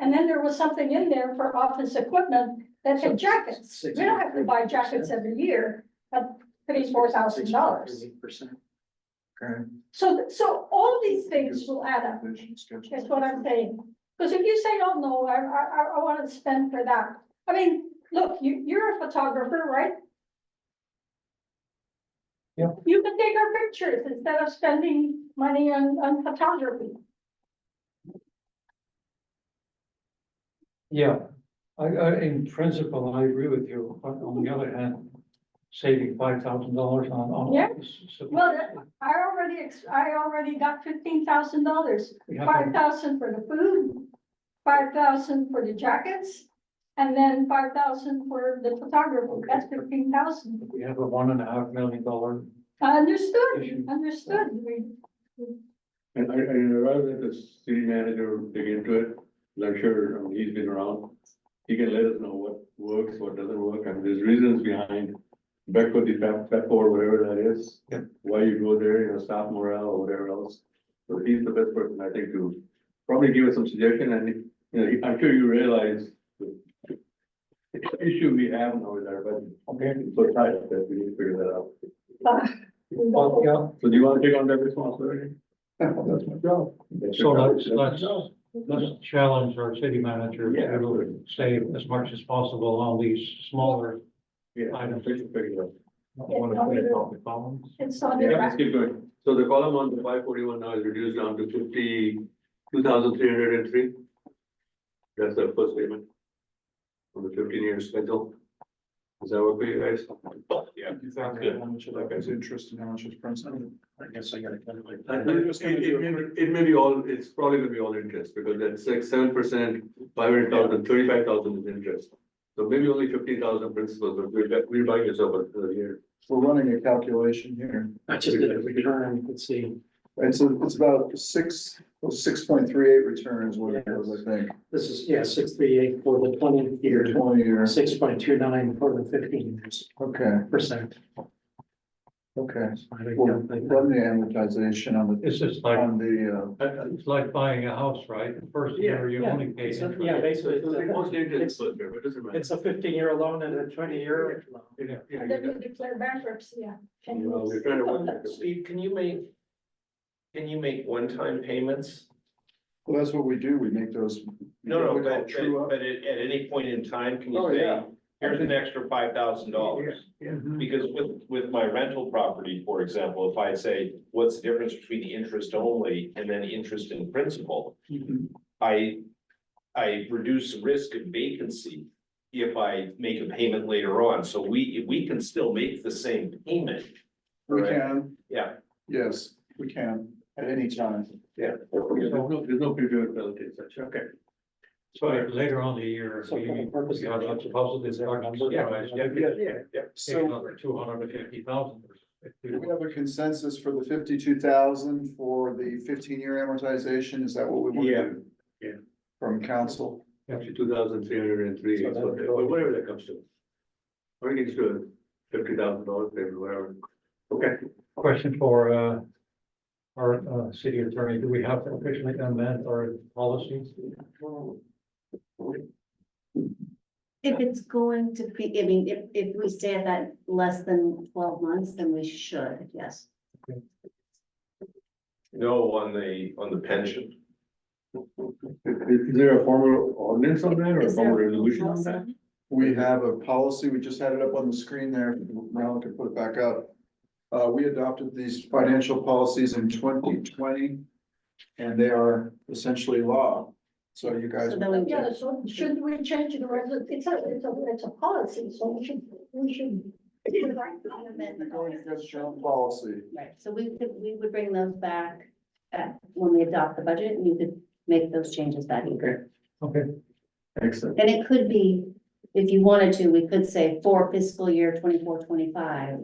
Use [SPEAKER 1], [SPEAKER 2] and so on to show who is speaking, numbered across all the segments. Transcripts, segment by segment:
[SPEAKER 1] And then there was something in there for office equipment that had jackets. We don't have to buy jackets every year, but pretty four thousand dollars.
[SPEAKER 2] Percent.
[SPEAKER 1] So, so all these things will add up, is what I'm saying. Because if you say, oh, no, I, I, I- I want to spend for that. I mean, look, you, you're a photographer, right?
[SPEAKER 2] Yeah.
[SPEAKER 1] You can take our pictures instead of spending money on, on photography.
[SPEAKER 2] Yeah, I, I, in principle, I agree with you, but on the other hand, saving five thousand dollars on, on.
[SPEAKER 1] Yeah.
[SPEAKER 2] this is-
[SPEAKER 1] Well, that- I already, ex- I already got fifteen thousand dollars,
[SPEAKER 2] We have
[SPEAKER 1] five
[SPEAKER 2] a-
[SPEAKER 1] thousand for the food, five thousand for the jackets, and then five thousand for the photographer, that's fifteen thousand.
[SPEAKER 2] we have a one and a half million dollar,
[SPEAKER 1] Understood,
[SPEAKER 2] Issue.
[SPEAKER 1] understood, we,
[SPEAKER 3] And I, and rather than the city manager dig into it, 'cause I'm sure, I mean, he's been around. He can let us know what works, what doesn't work, and there's reasons behind Becko, the Fab, Fab or whatever that is.
[SPEAKER 2] Yeah.
[SPEAKER 3] Why you go there, you know, staff morale or whatever else. So he's the best person, I think, to probably give us some suggestion and, you know, I'm sure you realize the the issue we have now is our budget.
[SPEAKER 2] okay?
[SPEAKER 3] It's so tight that we need to figure that out.
[SPEAKER 2] Well, yeah,
[SPEAKER 3] So do you want to take on that responsibility? That's my job.
[SPEAKER 2] so let's, let's, let's challenge our city manager
[SPEAKER 3] Yeah,
[SPEAKER 2] to
[SPEAKER 3] absolutely.
[SPEAKER 2] save as much as possible on these smaller.
[SPEAKER 3] Yeah, I don't think so.
[SPEAKER 1] it's on
[SPEAKER 3] Yeah,
[SPEAKER 1] your
[SPEAKER 3] let's
[SPEAKER 1] back.
[SPEAKER 3] keep going. So the column on the five forty-one now is reduced down to fifty, two thousand three hundred and three. That's the first payment. On the fifteen year schedule. Is that what you guys? Yeah.
[SPEAKER 4] Exactly, how much of that is interest and how much is principal, I guess I gotta calculate.
[SPEAKER 3] It,
[SPEAKER 4] that. We're just gonna
[SPEAKER 3] it
[SPEAKER 4] do
[SPEAKER 3] may
[SPEAKER 4] a
[SPEAKER 3] be- it may be all, it's probably gonna be all interest, because that's like seven percent, five hundred thousand, thirty-five thousand is interest. So maybe only fifty thousand principal, but we're, bu- we're buying this over the year.
[SPEAKER 4] We're running a calculation here.
[SPEAKER 2] I just did a return, let's see.
[SPEAKER 4] And so it's about six, six point three eight returns, what it was, I think,
[SPEAKER 5] This is, yeah, six three eight for the twenty
[SPEAKER 4] year
[SPEAKER 5] year,
[SPEAKER 4] twenty year.
[SPEAKER 5] six point two nine for the fifteen years
[SPEAKER 4] Okay,
[SPEAKER 5] percent.
[SPEAKER 4] okay.
[SPEAKER 5] I think
[SPEAKER 4] Well,
[SPEAKER 5] that-
[SPEAKER 4] run the amortization on
[SPEAKER 2] It's just
[SPEAKER 4] the,
[SPEAKER 2] like,
[SPEAKER 4] on the, uh,
[SPEAKER 2] it's like buying a house, right? The first year you
[SPEAKER 5] Yeah,
[SPEAKER 2] only pay
[SPEAKER 5] it's a-
[SPEAKER 2] interest.
[SPEAKER 5] Yeah,
[SPEAKER 3] So
[SPEAKER 5] basically,
[SPEAKER 3] it's
[SPEAKER 5] it's
[SPEAKER 3] mostly
[SPEAKER 5] a-
[SPEAKER 3] interest,
[SPEAKER 5] it's,
[SPEAKER 3] but it doesn't matter.
[SPEAKER 5] it's a fifteen year loan and a twenty year loan.
[SPEAKER 3] Yeah, yeah,
[SPEAKER 1] And
[SPEAKER 3] yeah.
[SPEAKER 1] Then you declare bankruptcy, yeah. Can
[SPEAKER 3] Well,
[SPEAKER 1] you-
[SPEAKER 3] we're trying to work that.
[SPEAKER 6] Steve, can you make? Can you make one-time payments?
[SPEAKER 4] well, that's what we do, we make those.
[SPEAKER 6] No,
[SPEAKER 4] we call
[SPEAKER 6] no, but,
[SPEAKER 4] true
[SPEAKER 6] but,
[SPEAKER 4] up.
[SPEAKER 6] but at, at any point in time, can
[SPEAKER 4] Oh,
[SPEAKER 6] you
[SPEAKER 4] yeah.
[SPEAKER 6] say, here's an extra five thousand dollars?
[SPEAKER 3] Yeah.
[SPEAKER 6] Because with, with my rental property, for example, if I say, what's the difference between the interest only and then interest in principal?
[SPEAKER 4] Mhm.
[SPEAKER 6] I, I reduce the risk of vacancy if I make a payment later on, so we, we can still make the same payment.
[SPEAKER 4] We can,
[SPEAKER 6] Yeah,
[SPEAKER 4] yes, we can, at any time.
[SPEAKER 3] There's no, there's no period penalty, et cetera. Okay.
[SPEAKER 2] So if later on in the year,
[SPEAKER 5] So for the
[SPEAKER 2] we,
[SPEAKER 5] purpose
[SPEAKER 2] we have
[SPEAKER 5] of-
[SPEAKER 2] a positive
[SPEAKER 5] Yeah,
[SPEAKER 2] surprise,
[SPEAKER 5] yeah,
[SPEAKER 2] yeah,
[SPEAKER 6] yeah.
[SPEAKER 2] take
[SPEAKER 4] So
[SPEAKER 2] another two hundred and fifty thousand.
[SPEAKER 4] do we have a consensus for the fifty-two thousand for the fifteen-year amortization, is that what we want to
[SPEAKER 3] Yeah.
[SPEAKER 4] do?
[SPEAKER 3] Yeah.
[SPEAKER 4] From council?
[SPEAKER 3] Actually, two thousand three hundred and three,
[SPEAKER 5] So
[SPEAKER 3] is
[SPEAKER 5] that-
[SPEAKER 3] what they- or whatever that comes to. Or you can just do a fifty thousand dollar payment, whatever. Okay.
[SPEAKER 2] Question for, uh, our, uh, city attorney, do we have to officially amend our policies?
[SPEAKER 7] If it's going to be, I mean, if, if we stay at that less than twelve months, then we should, yes.
[SPEAKER 6] No, on the, on the pension.
[SPEAKER 3] Is there a formal ordinance on that or a
[SPEAKER 7] Is there
[SPEAKER 3] formal resolution on
[SPEAKER 7] also-
[SPEAKER 3] that?
[SPEAKER 4] We have a policy, we just had it up on the screen there, now we can put it back up. Uh, we adopted these financial policies in twenty twenty. And they are essentially law, so you guys.
[SPEAKER 7] So then we-
[SPEAKER 1] Yeah, so should we change the resol, it's a, it's a, it's a policy, so we should, we should.
[SPEAKER 4] You're going against your own policy,
[SPEAKER 7] Right, so we could, we would bring those back at, when we adopt the budget, and you could make those changes that year.
[SPEAKER 2] Okay,
[SPEAKER 3] Excellent.
[SPEAKER 7] And it could be, if you wanted to, we could say for fiscal year twenty-four, twenty-five.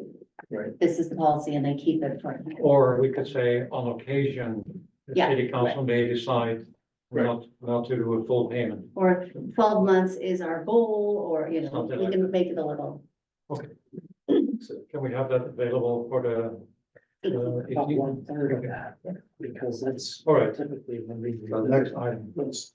[SPEAKER 3] Right.
[SPEAKER 7] This is the policy, and they keep it for.
[SPEAKER 2] or we could say on occasion, the
[SPEAKER 7] Yeah,
[SPEAKER 2] city council may decide
[SPEAKER 3] Right.
[SPEAKER 2] not, not to do a full payment.
[SPEAKER 7] Or twelve months is our goal, or, you know,
[SPEAKER 2] Something
[SPEAKER 7] we
[SPEAKER 2] like
[SPEAKER 7] can make it a little.
[SPEAKER 2] Can we have that available for the, uh, if
[SPEAKER 5] About
[SPEAKER 2] you-
[SPEAKER 5] one third of that, because that's
[SPEAKER 2] all right,
[SPEAKER 5] typically when we.
[SPEAKER 2] the next item.
[SPEAKER 5] Let's